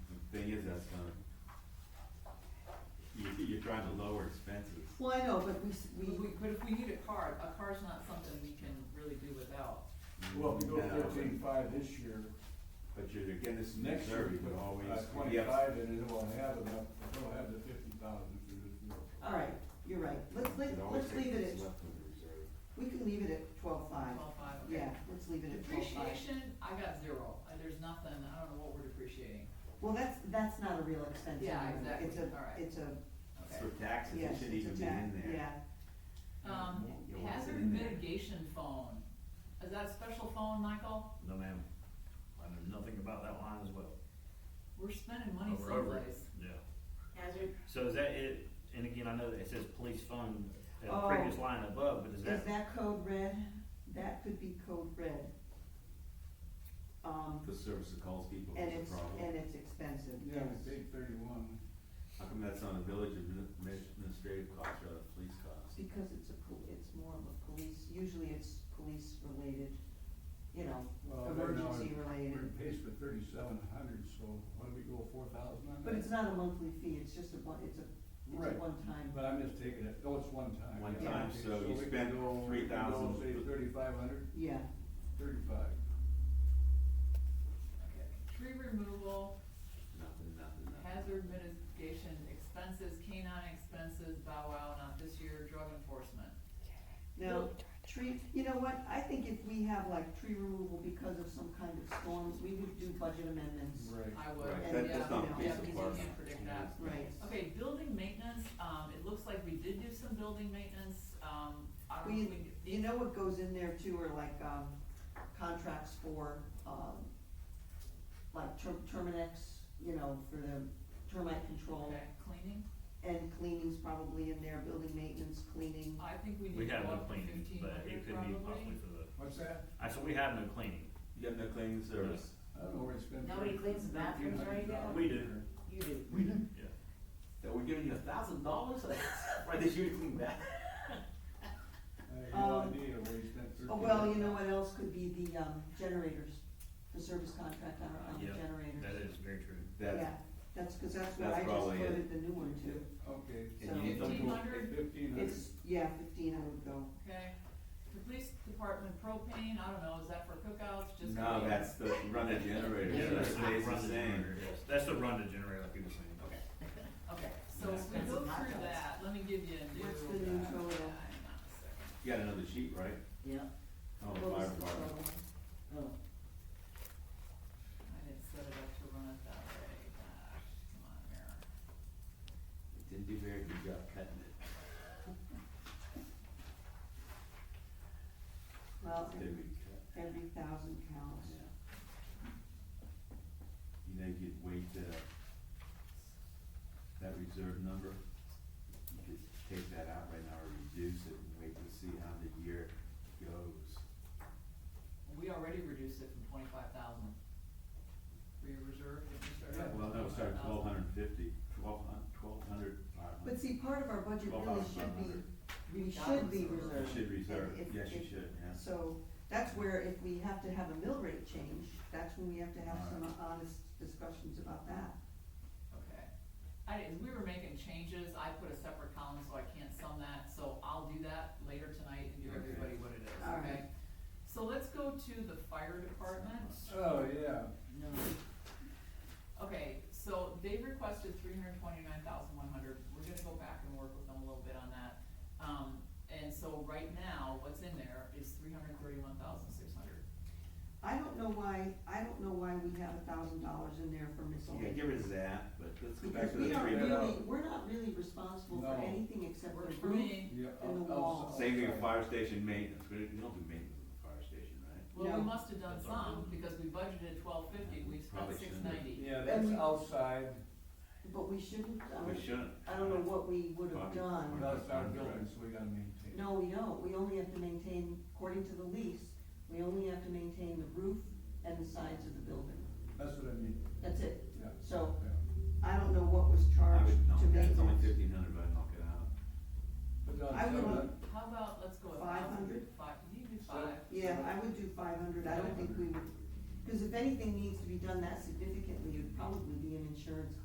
is, that's gonna, you, you're trying to lower expenses. Well, I know, but we, s- But we, we, but if we need a car, a car's not something we can really do without. Well, if you go No, but- fourteen five this year, But you're, again, this next year, you you would always. uh, twenty-five, and it won't have enough, it won't have the fifty thousand for this year. all right, you're right, let's, let's, let's leave it at, we can leave it at twelve-five, Twelve five, okay. yeah, let's leave it at twelve-five. Depreciation, I got zero, Uh, there's nothing, I don't know what we're depreciating, Well, that's, that's not a real expense Yeah, anyway. exactly. it's All right. a, it's a, okay. For taxes, yes, it should it's even a be tax, in yeah, there. Um, Yeah, what's hazard in there? mitigation phone, is that a special phone, Michael? No, ma'am. I know nothing about that line as well. We're spending money We're over it. someplace. Yeah. Hazard, So is that it? And again, I know that it says police fund at Oh. the previous line above, but Is is that, that code red? That could be code red. Um, The service that calls people and is it's, a problem. and it's expensive, Yeah, yes. it's eight thirty-one. How come that's on a village admin- administrative cost rather than police cost? Because it's a, pol- it's more of a police, usually it's police related, you know, Well, Uh, right now, emergency We're related. paid for thirty-seven hundred, so why do we go four thousand on that? But it's not a monthly fee, it's just a one, it's a, it's Right. a one-time. But I'm just taking it, oh, it's one time. One yeah, time, okay, so you we can spent go- we can 3,000. go, Say thirty-five hundred, Yeah, thirty-five. Okay. Tree removal, Nothing, nothing, nothing. hazard mitigation expenses, canine expenses, bow wow, not this year, drug enforcement. now, tree, you know what, I think if we have like tree removal because of some kind of storms, we would do budget amendments. Right. I would, Right, yeah, that, that's not you a know, yeah, piece because of work. you can't predict that. Right, Okay, building maintenance, um, it looks like we did do some building maintenance, um, I don't, We- we, you know what goes in there too are like, um, contracts for, um, like Term- Terminex, you know, for the termite control. okay, cleaning, And cleaning's probably in there, building maintenance, cleaning. I think we we need to have go no up to cleaning, fifteen but it hundred could be possibly probably. for the, What's that? actually, we have no cleaning. You have no cleaning service? I don't know where it's been. Nobody cleans the bathrooms right now? We do. you do. We do. Yeah. That we're giving you a thousand dollars? Why did you clean that? I have no Um, idea where he spent thirty. Oh, well, you know what else could be the, um, generators, the service contract on, on the Yeah, generators. That is very true. That's, Yeah, that's, cause that's what That's I just probably it. quoted the new one to. Okay. and So- you need to- Fifteen hundred, Fifteen hundred. It's, yeah, fifteen I would go. okay, the police department propane, I don't know, is that for cookouts, just? No, cleaning? that's the, you run a generator, so Yeah, it that's the stays run the to same. generator, yes. That's the run to generator, like you were saying. Okay. Okay, so if we That's go a hot dogs. through that, let me give you a new. What's the new total? Hang Oh, on a second. You got another sheet, right? Yeah. Oh, What was fire the department. Oh, total? I didn't set it up to run it that way, gosh, come on, Mayor. Didn't do a very good job cutting it. Well, Did every, we cut? every thousand counts. Yeah. You think you'd wait, uh, that reserve number? You could take that out right now or reduce it and wait to see how the year goes. We already reduced it from twenty-five thousand. For your reserve, did you start out? Well, no, with sorry, 25,000? twelve hundred and fifty, twelve hun- twelve hundred, five hundred. But see, part of our budget Twelve really thousand should five be, hundred. we We've got should be reserve. You reserved. should reserve, If- if- yes, you if- should, yeah. So that's where if we have to have a mill rate change, that's when we have to have some honest discussions about that. Okay. I, as we were making changes, I put a separate column, so I can't sum that, so I'll do that later tonight and give Okay. everybody what it is, All okay? So let's go to the fire department. Oh, yeah. no. Okay, so they requested three hundred twenty-nine thousand one hundred, we're gonna go back and work with them a little bit on that. Um, and so right now, what's in there is three hundred thirty-one thousand six hundred. I don't know why, I don't know why we have a thousand dollars in there for Yeah, miscellaneous. get rid of that, but let's go back Because to the three we aren't Yeah. really, we're not really responsible for No. anything except Works the for roof. me. Yeah. And the I'll- I'll- wall. Saving a fire station maintenance, we don't we don't do maintenance on the fire station, right? Well, No. we must have done That's all some, because we budgeted twelve fifty, we spent Probably six shouldn't have. ninety. Yeah, that's we- outside, But we shouldn't, I We don't, shouldn't. I don't know what we would have Bobby, done. Bobby. that's our building, so we gotta maintain. No, we don't, we only have to maintain, according to the lease, we only have to maintain the roof and the sides of the building, That's what I mean, that's it. yeah. So, yeah. I don't know what was I charged would knock to that, make it's only that. fifteen hundred, but I'd knock it out. But uh, don't I tell would- that- How about, let's go a Five thousand, hundred? five, you do So- five, Yeah, I would do five hundred, I don't think we would, cause if anything needs to be done that significantly, it'd probably be an insurance